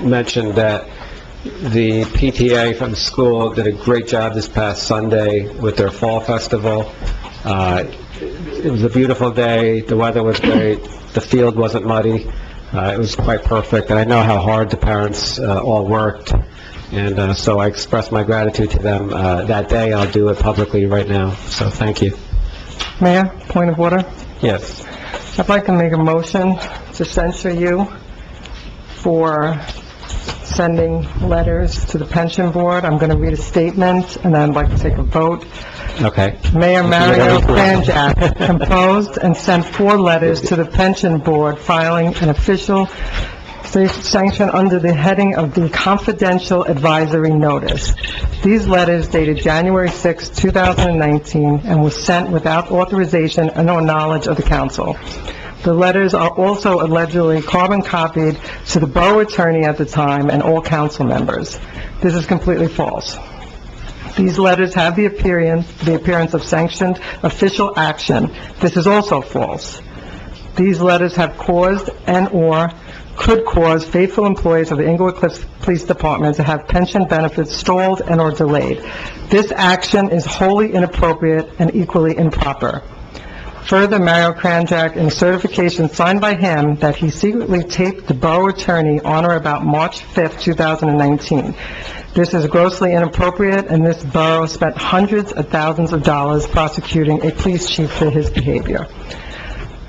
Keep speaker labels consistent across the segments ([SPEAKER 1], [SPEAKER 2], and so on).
[SPEAKER 1] mentioned that the PTA from school did a great job this past Sunday with their fall festival. Uh, It was a beautiful day, the weather was great, the field wasn't muddy, Uh, it was quite perfect, and I know how hard the parents uh, all worked, and uh, so I express my gratitude to them uh, that day, I'll do it publicly right now, so thank you.
[SPEAKER 2] Mayor, point of order.
[SPEAKER 1] Yes,
[SPEAKER 2] I'd like to make a motion to censure you for sending letters to the pension board. I'm going to read a statement, and I'd like to take a vote.
[SPEAKER 1] okay.
[SPEAKER 2] Mayor Mario
[SPEAKER 1] You're gonna be correct.
[SPEAKER 2] Kranjak composed and sent four letters to the pension board filing an official sanction under the heading of the confidential advisory notice. These letters dated January 6, 2019, and were sent without authorization and or knowledge of the council. The letters are also allegedly carbon copied to the borough attorney at the time and all council members. This is completely false. These letters have the appearance, the appearance of sanctioned official action. This is also false. These letters have caused and/or could cause faithful employees of the Englewood Cliffs Police Department to have pension benefits stalled and/or delayed. This action is wholly inappropriate and equally improper. Further, Mario Kranjak, in a certification signed by him that he secretly taped the borough attorney on or about March 5th, 2019. This is grossly inappropriate, and this borough spent hundreds of thousands of dollars prosecuting a police chief for his behavior.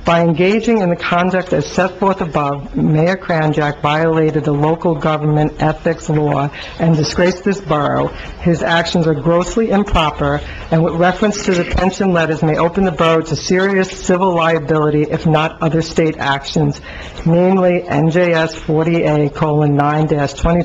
[SPEAKER 2] By engaging in the conduct as set forth above, Mayor Kranjak violated the local government ethics law and disgraced this borough. His actions are grossly improper, and with reference to the pension letters may open the borough to serious civil liability if not other state actions, namely NJS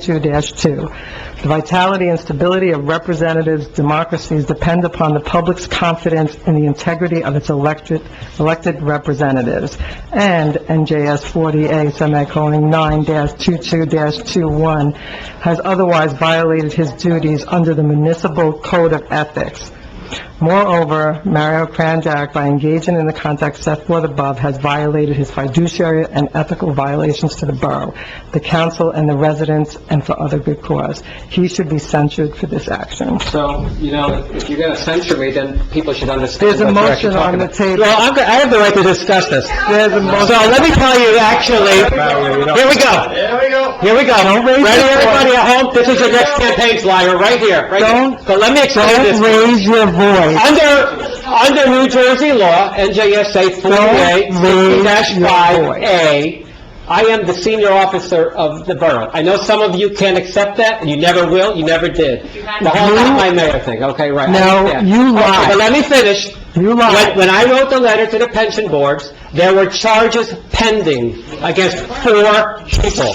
[SPEAKER 2] 40A:9-22-2. The vitality and stability of representatives' democracies depend upon the public's confidence in the integrity of its elected, elected representatives. And NJS 40A, semicolon, 9-22-21, has otherwise violated his duties under the municipal code of ethics. Moreover, Mario Kranjak, by engaging in the conduct set forth above, has violated his fiduciary and ethical violations to the borough, the council, and the residents, and for other good cause. He should be censured for this action.
[SPEAKER 1] So, you know, if you're going to censure me, then people should understand
[SPEAKER 2] There's a
[SPEAKER 1] what you're actually
[SPEAKER 2] motion
[SPEAKER 1] talking
[SPEAKER 2] on the
[SPEAKER 1] about.
[SPEAKER 2] table.
[SPEAKER 3] Well, I'm go- I have the right to discuss this. So
[SPEAKER 2] There's a motion.
[SPEAKER 3] let me tell you, actually, here we go,
[SPEAKER 4] There we go.
[SPEAKER 3] here we go.
[SPEAKER 2] raise
[SPEAKER 3] Ready,
[SPEAKER 2] your
[SPEAKER 3] everybody at home, this is your next campaign flyer, right here, right here.
[SPEAKER 2] Don't-
[SPEAKER 3] So let me explain
[SPEAKER 2] Don't
[SPEAKER 3] this.
[SPEAKER 2] raise your voice.
[SPEAKER 3] Under, under New Jersey law, NJSA
[SPEAKER 2] Don't raise your
[SPEAKER 3] 48-5A, I am the senior officer of the borough. I know some of you can't accept that, and you never will, you never did. The whole not my mayor thing, okay, right? I
[SPEAKER 2] No,
[SPEAKER 3] understand.
[SPEAKER 2] you
[SPEAKER 3] Okay,
[SPEAKER 2] lied.
[SPEAKER 3] But let me finish.
[SPEAKER 2] You
[SPEAKER 3] When,
[SPEAKER 2] lied.
[SPEAKER 3] when I wrote the letter to the pension boards, there were charges pending against four people.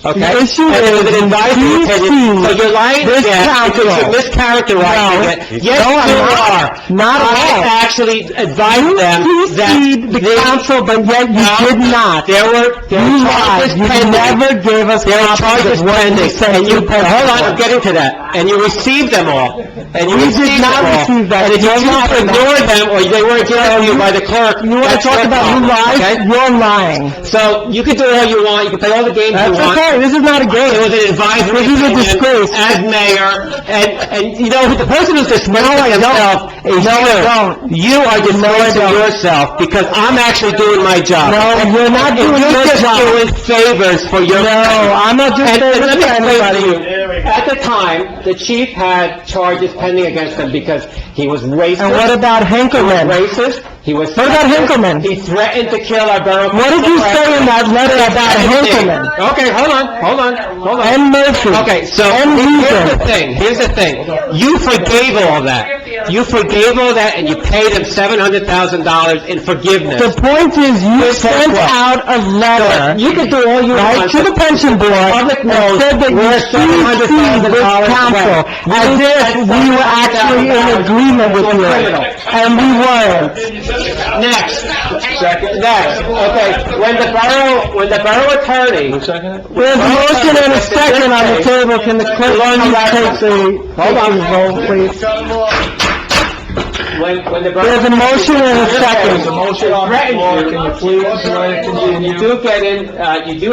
[SPEAKER 3] Okay?
[SPEAKER 2] The issue
[SPEAKER 3] And it was
[SPEAKER 2] is,
[SPEAKER 3] an advisory
[SPEAKER 2] you
[SPEAKER 3] opinion. So
[SPEAKER 2] choose
[SPEAKER 3] you're lying
[SPEAKER 2] this
[SPEAKER 3] again, because
[SPEAKER 2] council.
[SPEAKER 3] you're mischaracterizing it. Yes,
[SPEAKER 2] No, I'm
[SPEAKER 3] you are.
[SPEAKER 2] not. Not at all.
[SPEAKER 3] I actually advised them
[SPEAKER 2] You
[SPEAKER 3] that...
[SPEAKER 2] sued the
[SPEAKER 3] they-
[SPEAKER 2] council, but yet you did not.
[SPEAKER 3] There were, there were
[SPEAKER 2] You
[SPEAKER 3] charges
[SPEAKER 2] lied. You
[SPEAKER 3] pending.
[SPEAKER 2] never gave us
[SPEAKER 3] There were
[SPEAKER 2] copies
[SPEAKER 3] charges
[SPEAKER 2] of what you
[SPEAKER 3] pending,
[SPEAKER 2] said
[SPEAKER 3] and you,
[SPEAKER 2] to
[SPEAKER 3] hold on, I'm
[SPEAKER 2] Pepsi.
[SPEAKER 3] getting to that, and you received them all, and you
[SPEAKER 2] We did
[SPEAKER 3] received them
[SPEAKER 2] not
[SPEAKER 3] all.
[SPEAKER 2] receive that.
[SPEAKER 3] And if you
[SPEAKER 2] You're
[SPEAKER 3] choose to
[SPEAKER 2] lying.
[SPEAKER 3] ignore them, or they weren't given to you by the clerk,
[SPEAKER 2] You want to
[SPEAKER 3] that's
[SPEAKER 2] talk
[SPEAKER 3] your
[SPEAKER 2] about who
[SPEAKER 3] problem,
[SPEAKER 2] lies?
[SPEAKER 3] okay?
[SPEAKER 2] You're lying.
[SPEAKER 3] So, you can do all you want, you can play all the games you
[SPEAKER 2] That's
[SPEAKER 3] want.
[SPEAKER 2] okay, this is not a
[SPEAKER 3] It
[SPEAKER 2] game.
[SPEAKER 3] was an advisory
[SPEAKER 2] This is a
[SPEAKER 3] opinion
[SPEAKER 2] disgrace.
[SPEAKER 3] as mayor, and, and, you know, the person who's dismissing himself is
[SPEAKER 2] No, I
[SPEAKER 3] you.
[SPEAKER 2] don't.
[SPEAKER 3] You are dismissing
[SPEAKER 2] don't.
[SPEAKER 3] yourself, because I'm actually doing my job.
[SPEAKER 2] No, you're not
[SPEAKER 3] And
[SPEAKER 2] doing your job.
[SPEAKER 3] You're just doing favors for your...
[SPEAKER 2] No, I'm not just
[SPEAKER 3] And
[SPEAKER 2] saying
[SPEAKER 3] and
[SPEAKER 2] this
[SPEAKER 3] let me
[SPEAKER 2] to
[SPEAKER 3] explain to
[SPEAKER 2] anybody.
[SPEAKER 3] you,
[SPEAKER 4] There we go.
[SPEAKER 3] at the time, the chief had charges pending against him because he was racist.
[SPEAKER 2] And what about
[SPEAKER 3] He
[SPEAKER 2] Henkelman?
[SPEAKER 3] was racist, he was...
[SPEAKER 2] What about
[SPEAKER 3] sexist,
[SPEAKER 2] Hinkleman?
[SPEAKER 3] He threatened to kill our borough...
[SPEAKER 2] What did you say in that letter about Henkelman?
[SPEAKER 3] Okay, hold on, hold on, hold on.
[SPEAKER 2] And Murphy?
[SPEAKER 3] Okay, so,
[SPEAKER 2] And
[SPEAKER 3] here's the
[SPEAKER 2] Regan.
[SPEAKER 3] thing, here's the thing. You forgave all that. You forgave all that, and you paid him $700,000 in
[SPEAKER 2] The
[SPEAKER 3] forgiveness.
[SPEAKER 2] point is, you sent out a letter,
[SPEAKER 3] You can do all you
[SPEAKER 2] right,
[SPEAKER 3] want.
[SPEAKER 2] to the pension board, and
[SPEAKER 3] Public knows
[SPEAKER 2] said that you
[SPEAKER 3] we're
[SPEAKER 2] CC'd this
[SPEAKER 3] $700,000
[SPEAKER 2] council,
[SPEAKER 3] away.
[SPEAKER 2] as if we were actually in agreement with you. And we weren't.
[SPEAKER 3] Next. Next, okay. When the borough, when the borough attorney...
[SPEAKER 2] There's a motion and a second on the table, can the clerk please take the,
[SPEAKER 3] Hold on.
[SPEAKER 2] vote, please?
[SPEAKER 4] Shut them off.
[SPEAKER 3] When, when the borough...
[SPEAKER 2] There's a motion and a second.
[SPEAKER 3] Threatened you. You do get in, uh, you do